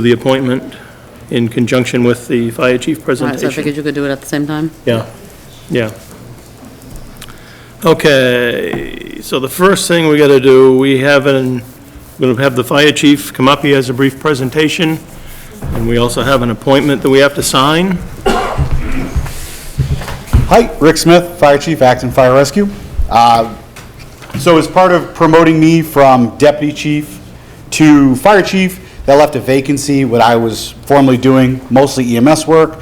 the appointment in conjunction with the fire chief All right, Ah, so I figured presentation. you could do it at the same time. Yeah, yeah. Okay, so the first thing we got to do, we have an, we're going to have the fire chief come up, he has a brief presentation, and we also have an appointment that we have to sign. Hi, Rick Smith, Fire Chief, Acton Fire Rescue. Uh, So as part of promoting me from deputy chief to fire chief, that left a vacancy, what I was formerly doing, mostly EMS work,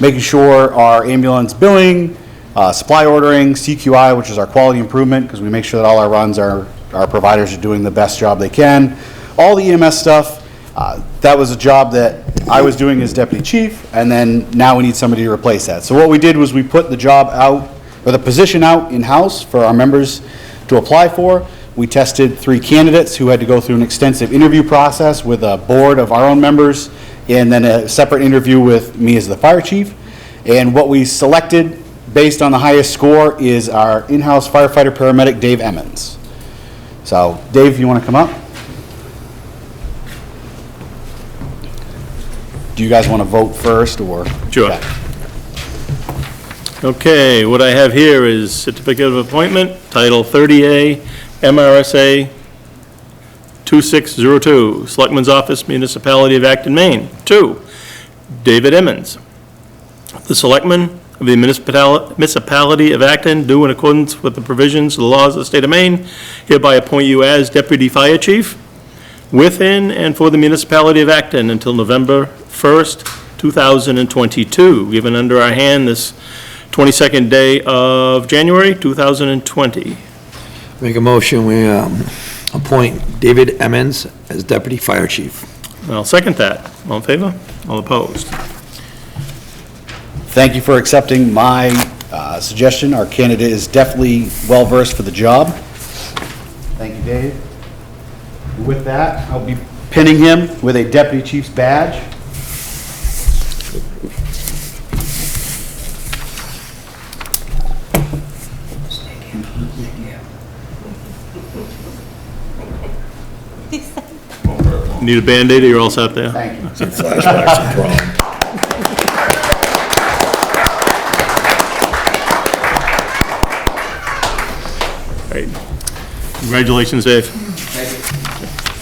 making sure our ambulance billing, uh, supply ordering, CQI, which is our quality improvement, because we make sure that all our runs are, our providers are doing the best job they can, all the EMS stuff. Uh, That was a job that I was doing as deputy chief, and then now we need somebody to replace that. So what we did was we put the job out, or the position out in-house for our members to apply for. We tested three candidates who had to go through an extensive interview process with a board of our own members, and then a separate interview with me as the fire chief. And what we selected, based on the highest score, is our in-house firefighter paramedic, Dave Emmons. So, Dave, you want to come up? Do you guys want to vote first, or? Sure. Okay, what I have here is certificate of appointment, Title 30A, MRSA 2602, Selectman's Office, Municipality of Acton, Maine. Two, David Emmons. The Selectmen of the Municipal- Municipality of Acton do in accordance with the provisions of the laws of the state of Maine hereby appoint you as Deputy Fire Chief within and for the municipality of Acton until November 1st, 2022, given under our hand this 22nd day of January 2020. Make a motion, we um, appoint David Emmons as Deputy Fire Chief. I'll second that. All in favor? All opposed? Thank you for accepting my uh, suggestion. Our candidate is definitely well-versed for the job. Thank you, Dave. With that, I'll be pinning him with a deputy chief's badge. Need a Band-Aid or you're all set there? Thank you. Great. Congratulations, Dave.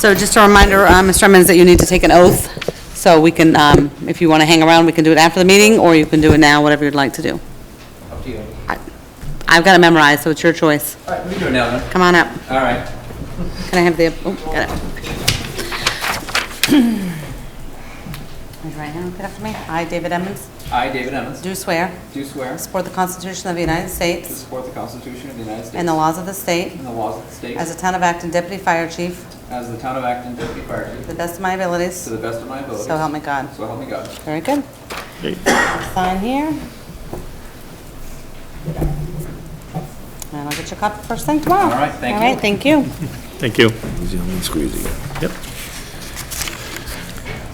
So just a reminder, um, Mr. Emmons, that you need to take an oath, so we can, um, if you want to hang around, we can do it after the meeting, or you can do it now, whatever you'd like to do. Up to you. I've got it memorized, so it's your choice. All right, we can do it now then. Come on up. All right. Can I have the, oh, got it. Raise your right hand, repeat after me. I, David Emmons, I, David Emmons, do swear, do swear to support the Constitution of the United States support the Constitution of the United States and the laws of the state, and the laws of the state as a town of Acton deputy fire chief, as the town of Acton deputy fire to chief the best of my abilities, to the best of my ability. so help me God. So help me God. Very good. Great. Sign here. And I'll get your copy first thing tomorrow. All right, thank All right, you. thank you. Thank you. Yep.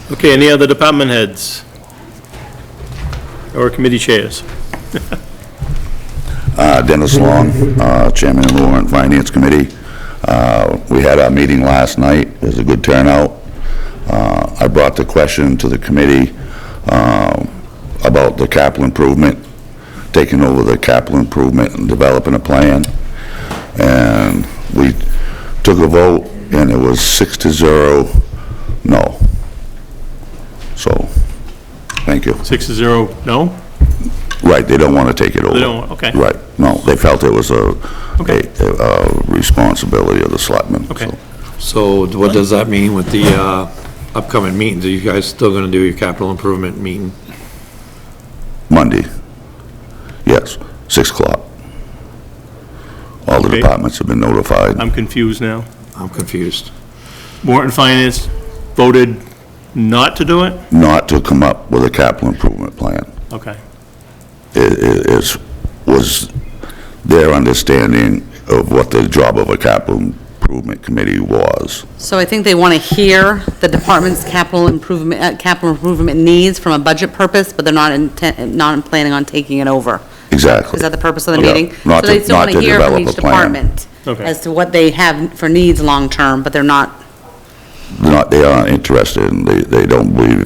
Okay, any other department heads? Or committee chairs? Uh, Dennis Long, uh, Chairman of the Warrant and Finance Committee. Uh, We had our meeting last night, it was a good turnout. Uh, I brought the question to the committee um, about the capital improvement, taking over the capital improvement and developing a plan. And we took a vote, and it was six to zero, no. So, thank you. Six to zero, no? Right, they don't want to take it over. They don't, okay. Right, no, they felt it was a, Okay. a- a responsibility of the selectmen. Okay. so. So what does that mean with the uh, upcoming meetings? Are you guys still going to do your capital improvement meeting? Monday, yes, 6 o'clock. All the Okay. departments have been notified. I'm confused now. I'm confused. Warrant and Finance voted not to do it? Not to come up with a capital improvement plan Okay, i- i- is, was their understanding of what the job of a capital improvement committee was. So I think they want to hear the department's capital improvement, uh, capital improvement needs from a budget purpose, but they're not intent, not planning on taking it over. Exactly. Is that the purpose of the Yeah, meeting? not So they to- still not want to hear from develop each a plan. department Okay. As to what they have for needs long-term, but they're not they're not, they aren't interested, and they, they don't believe